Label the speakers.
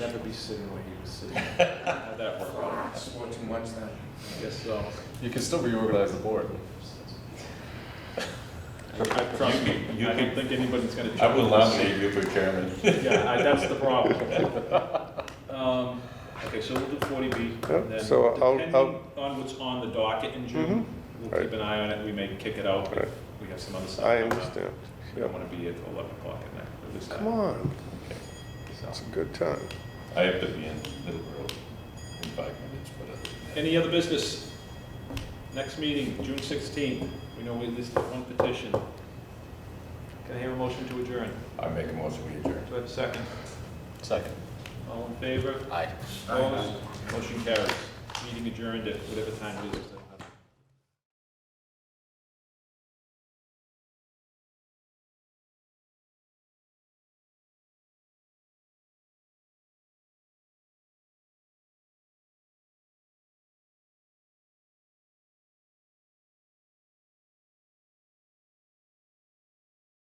Speaker 1: be sitting where he was sitting. How'd that work out?
Speaker 2: Swore too much then.
Speaker 1: I guess so.
Speaker 3: You can still reorganize the board.
Speaker 1: I trust me,
Speaker 4: You
Speaker 1: I don't
Speaker 4: can-
Speaker 1: think anybody's gonna.
Speaker 4: I would
Speaker 1: challenge
Speaker 4: love
Speaker 1: us.
Speaker 4: to you for chairman.
Speaker 1: Yeah, I- that's the problem. Um, Okay, so we'll do forty B.
Speaker 5: Yep, so I'll- I'll-
Speaker 1: Depending on what's on the docket in June, we'll keep
Speaker 5: Right.
Speaker 1: an eye on it, we may kick it out if
Speaker 5: Right.
Speaker 1: we have some other stuff.
Speaker 5: I
Speaker 1: going on.
Speaker 5: understand.
Speaker 1: We don't wanna be at eleven o'clock at night, at least. I-
Speaker 5: Come on,
Speaker 1: so.
Speaker 5: it's a good time.
Speaker 4: I have to be in Middleborough in five minutes, but other than that-
Speaker 1: Any other business? Next meeting, June sixteenth, we know we listed one petition. Can I hear a motion to adjourn?
Speaker 4: I make a motion, we adjourn.
Speaker 1: Do I have a second?
Speaker 3: Second.
Speaker 1: All in favor?
Speaker 3: Aye.
Speaker 1: Opposed? Motion carries. Meeting adjourned at whatever time it is.